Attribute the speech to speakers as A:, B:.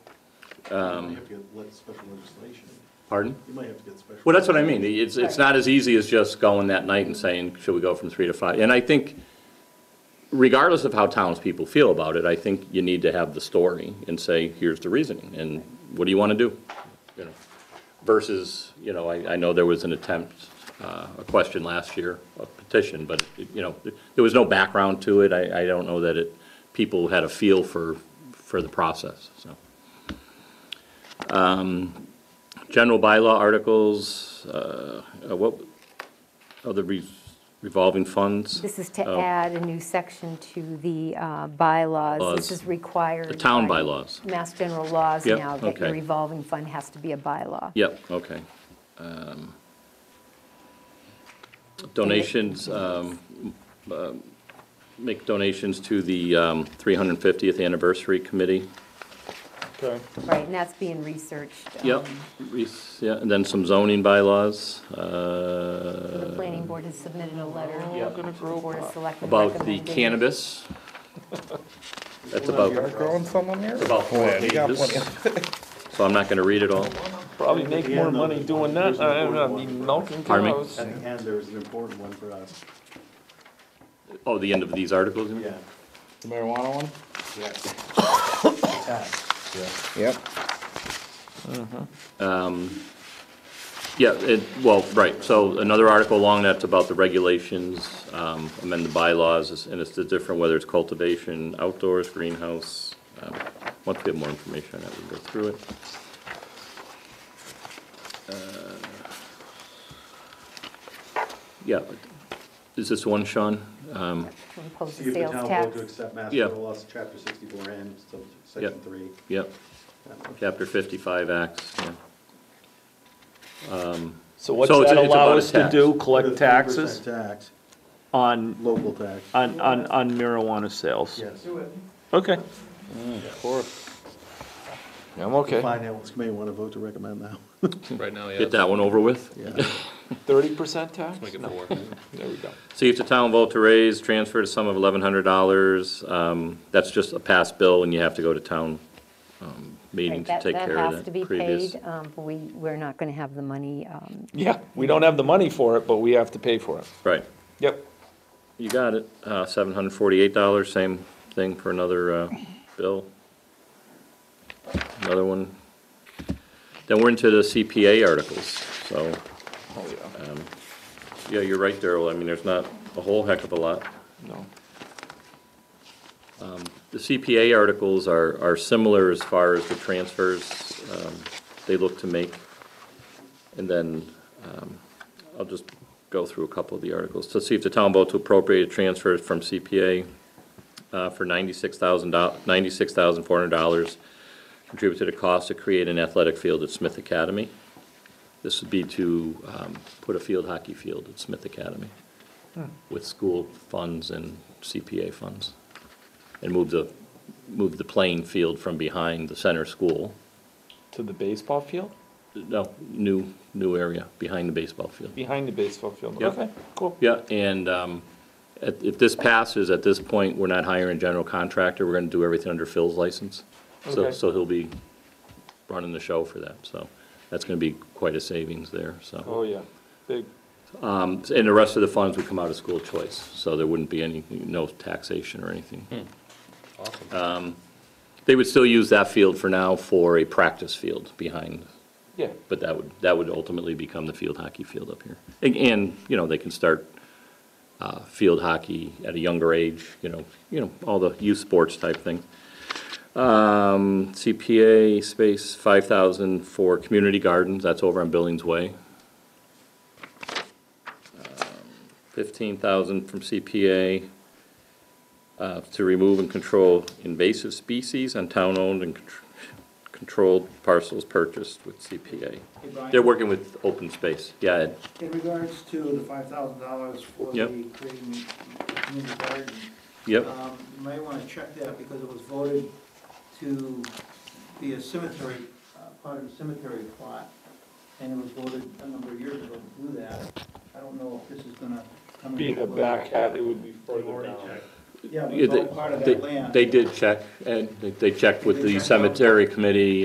A: Um,
B: You might have to get le- special legislation.
A: Pardon?
B: You might have to get special.
A: Well, that's what I mean. It's, it's not as easy as just going that night and saying, should we go from three to five? And I think regardless of how townspeople feel about it, I think you need to have the story and say, here's the reasoning, and what do you want to do? You know, Versus, you know, I, I know there was an attempt, uh, a question last year, a petition, but, it- you know, there was no background to it. I, I don't know that it, people had a feel for, for the process, so. Um, General bylaw articles, uh, uh, what, other re- revolving funds?
C: This is to
A: Oh.
C: add a new section to the uh, bylaws.
A: Laws.
C: This is required.
A: The town
C: by
A: bylaws.
C: Mass general laws
A: Yep,
C: now that
A: okay.
C: your revolving fund has to be a bylaw.
A: Yep, okay. Um, Donations, um, um, make donations to the um, 350th Anniversary Committee.
D: Okay.
C: Right, and that's being researched.
A: Yep,
C: um,
A: re- yeah, and then some zoning bylaws
C: The
A: uh,
C: planning board has submitted a letter.
B: Oh,
A: Yeah.
C: to the Board of Selectmen
A: about the
C: recommending-
A: cannabis. That's
D: You're
A: about,
D: growing someone here?
A: about four
D: Oh, Yeah, you got
A: pages,
D: plenty.
A: so I'm not going to read it all.
D: Probably make more money doing that, I don't know, milking
A: Pardon me?
D: cows.
B: At the end, there was an important one for us.
A: Oh, the end of these articles? you mean?
B: Yeah.
D: The marijuana one?
B: Yes.
D: Yep.
A: Yeah, it, well, right, so another article along that's about the regulations, um, amend the bylaws, and it's the different, whether it's cultivation, outdoors, greenhouse. um, Once we have more information on that, we can go through it. Uh, Yeah, but- is this one, Sean? Um,
C: To impose
B: See
C: a
B: if the
C: sales
B: town will
C: tax.
B: to accept Mass
A: Yeah.
B: General Laws, Chapter 64 and so Section
A: Yep.
B: 3.
A: Yep, chapter fifty-five acts, yeah.
D: So what's
A: So it's-
D: that
A: it's
D: allow
A: about a
D: us to
A: tax.
D: do,
B: With
D: collect
B: a 3%
D: taxes Uh,
B: Tax,
D: on,
B: local tax.
D: on, on on marijuana sales?
B: Yes.
D: Okay. I'm okay.
B: Finance committee want to vote to recommend that.
E: Right now, yeah.
A: Get that one over with.
D: Thirty percent tax?
E: Make it
D: No.
E: four.
D: There we go.
A: See if the town vote to raise, transfer a sum of eleven hundred dollars, um, that's just a past bill and you have to go to town, um, meeting
C: Right,
A: to
C: that-
A: take care
C: That has
A: of
C: to be
A: that previous.
C: paid, um, but we, we're not going to have the money. um,
D: Yeah, we don't have the money for it, but we have to pay for it.
A: Right,
D: Yep.
A: you got it, uh, seven hundred forty-eight dollars, same thing for another, uh, bill. Another one. Then we're into the CPA articles, so,
D: Oh, yeah.
A: yeah, you're right, Darrell, I mean, there's not a whole heck of a lot.
D: No.
A: The CPA articles are, are similar as far as the transfers um, they look to make. And then um, I'll just go through a couple of the articles. To see if the town vote to appropriate transfers from CPA uh, for ninety-six thousand ninety-six thousand four hundred dollars contribute to the cost to create an athletic field at Smith Academy. This would be to um, put a field hockey field at Smith Academy with school funds and CPA funds and move the, move the playing field from behind the center school,
D: To the baseball field?
A: no, new, new area, behind the baseball field.
D: Behind the baseball field.
A: Yep.
D: Okay, cool.
A: Yeah, and um, at- if this passes, at this point, we're not hiring a general contractor, we're gonna do everything under Phil's license. So,
D: Okay.
A: so he'll be running the show for that, so that's gonna be quite a savings there, so.
D: Oh, yeah. Big.
A: Um, And the rest of the funds would come out of school choice, so there wouldn't be any, no taxation or anything. Um,
E: Awesome.
A: They would still use that field for now for a practice field behind
D: Yeah.
A: But that would, that would ultimately become the field hockey field up here. And- And, you know, they can start uh, field hockey at a younger age, you know, you know, all the youth sports type thing. Um, CPA space, 5,000 for community gardens, that's over on Billings Way. Um, 15,000 from CPA uh, to remove and control invasive species on town-owned and contr- controlled parcels purchased with CPA.
F: Hey, Brian.
A: They're working with open space, yeah, Ed.
F: In regards to the five thousand dollars for the
A: Yep.
F: creating community garden.
A: yep,
F: um, You might wanna check that because it was voted to be a cemetery, uh, part of the cemetery plot. And it was voted a number of years ago to do that. I don't know if this is gonna come.
D: Be in
F: into
D: the
F: play.
D: back half, it would be further down.
F: Yeah, but
A: Yeah,
F: it's
A: they-
F: all part of
A: they-
F: that land.
A: They did check, and they- they checked with
F: They
A: the
F: checked out.
A: cemetery committee